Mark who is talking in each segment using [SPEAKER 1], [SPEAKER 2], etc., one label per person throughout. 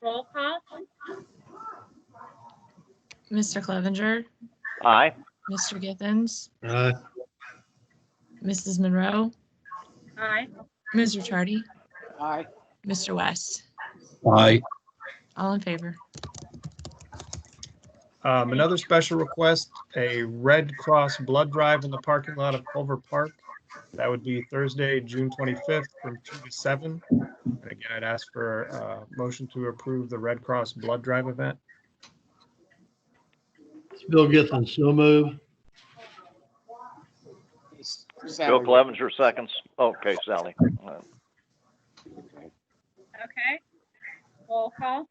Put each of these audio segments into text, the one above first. [SPEAKER 1] Roll call?
[SPEAKER 2] Mr. Clevenger,
[SPEAKER 3] Aye.
[SPEAKER 2] Mr. Githens,
[SPEAKER 4] Aye.
[SPEAKER 2] Mrs. Monroe,
[SPEAKER 1] Aye.
[SPEAKER 2] Ms. Ricciardi,
[SPEAKER 5] Aye.
[SPEAKER 2] Mr. West,
[SPEAKER 4] Aye.
[SPEAKER 2] all in favor.
[SPEAKER 6] Um, another special request, a Red Cross blood drive in the parking lot of Culver Park. That would be Thursday, June twenty-fifth from two to seven. And again, I'd ask for a motion to approve the Red Cross blood drive event.
[SPEAKER 4] Bill Githens, so move.
[SPEAKER 3] Bill
[SPEAKER 5] Sally.
[SPEAKER 3] Clevenger seconds. Okay, Sally. Uh,
[SPEAKER 5] Okay.
[SPEAKER 1] Okay. Roll call?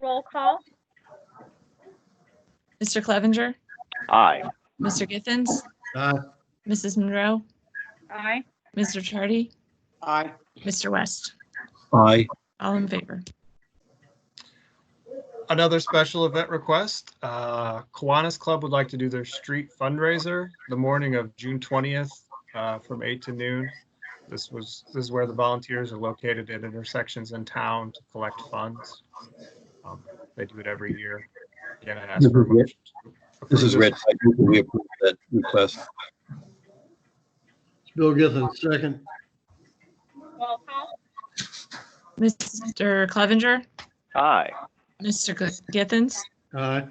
[SPEAKER 1] Roll call?
[SPEAKER 2] Mr. Clevenger,
[SPEAKER 3] Aye.
[SPEAKER 2] Mr. Githens,
[SPEAKER 4] Aye.
[SPEAKER 2] Mrs. Monroe,
[SPEAKER 1] Aye.
[SPEAKER 2] Ms. Ricciardi,
[SPEAKER 5] Aye.
[SPEAKER 2] Mr. West,
[SPEAKER 4] Aye.
[SPEAKER 2] all in favor.
[SPEAKER 6] Another special event request, uh, Kiwanis Club would like to do their street fundraiser the morning of June twentieth, uh, from eight to noon. This was, this is where the volunteers are located at intersections in town to collect funds. Um, They do it every year. Again, I'd ask for a motion to
[SPEAKER 7] This is
[SPEAKER 6] approve
[SPEAKER 7] Rich. I move that We approve that request.
[SPEAKER 4] Bill Githens, second.
[SPEAKER 1] Roll call?
[SPEAKER 2] Mr. Clevenger,
[SPEAKER 3] Aye.
[SPEAKER 2] Mr. Gi- Githens,
[SPEAKER 4] Aye.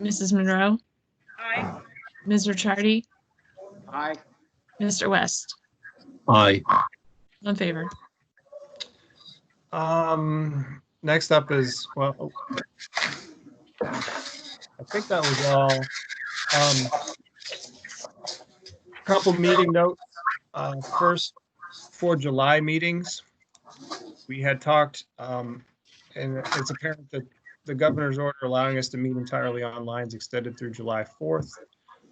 [SPEAKER 2] Mrs. Monroe,
[SPEAKER 1] Aye.
[SPEAKER 2] Ms. Ricciardi,
[SPEAKER 5] Aye.
[SPEAKER 2] Mr. West,
[SPEAKER 7] Aye.
[SPEAKER 2] all in favor.
[SPEAKER 6] Um, next up is, well, oh. I think that was all. Um, couple meeting notes, uh, first for July meetings. We had talked, um, and it's apparent that the governor's order allowing us to meet entirely online is extended through July 4th.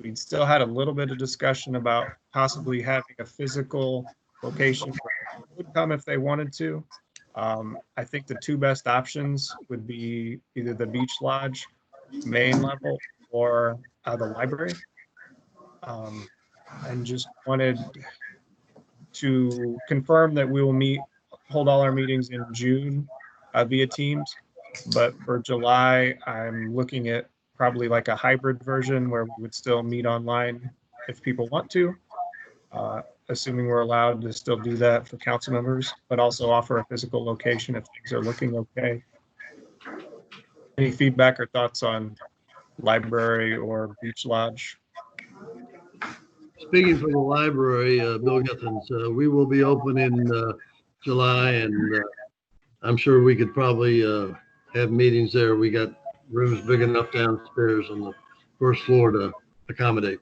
[SPEAKER 6] We still had a little bit of discussion about possibly having a physical location where people would come if they wanted to. Um, I think the two best options would be either the beach lodge, main level, or uh, the library. Um, and just wanted to confirm that we will meet, hold all our meetings in June uh, via Teams. But for July, I'm looking at probably like a hybrid version where we would still meet online if people want to. Uh, assuming we're allowed to still do that for council members, but also offer a physical location if things are looking okay. Any feedback or thoughts on library or beach lodge?
[SPEAKER 4] Speaking for the library, uh, Bill Githens, uh, we will be open in, uh, July and, uh, I'm sure we could probably, uh, have meetings there. We got rooms big enough downstairs on the first floor to accommodate.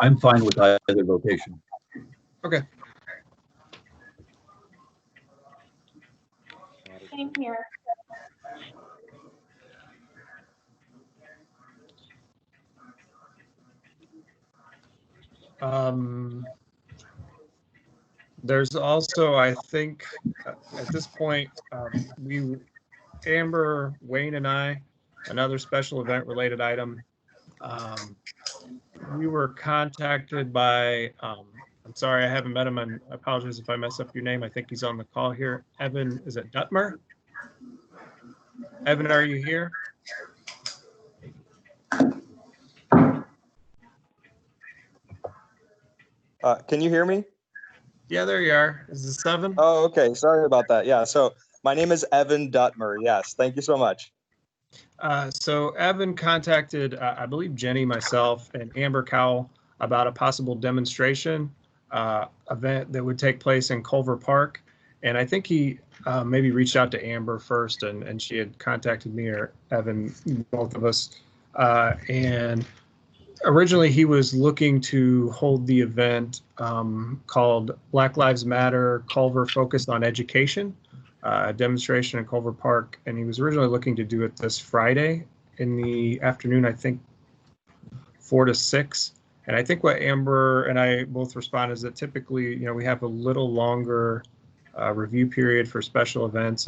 [SPEAKER 7] I'm fine with either location.
[SPEAKER 1] Same here.
[SPEAKER 6] Um, there's also, I think, uh, at this point, um, we, Amber, Wayne and I, another special event related item. Um, we were contacted by, um, I'm sorry, I haven't met him and I apologize if I mess up your name. I think he's on the call here. Evan, is it Dutmer? Evan, are you here?
[SPEAKER 8] Uh, can you hear me?
[SPEAKER 6] Yeah, there you are. Is this Evan?
[SPEAKER 8] Oh, okay. Sorry about that. Yeah. So my name is Evan Dutmer. Yes. Thank you so much.
[SPEAKER 6] Uh, so Evan contacted, uh, I believe Jenny, myself, and Amber Cowell about a possible demonstration uh, event that would take place in Culver Park. And I think he uh, maybe reached out to Amber first, and, and she had contacted me or Evan, both of us. Uh, and originally, he was looking to hold the event um, called Black Lives Matter Culver Focused on Education uh, demonstration in Culver Park, and he was originally looking to do it this Friday in the afternoon, I think, four to six. And I think what Amber and I both respond is that typically, you know, we have a little longer uh, review period for special events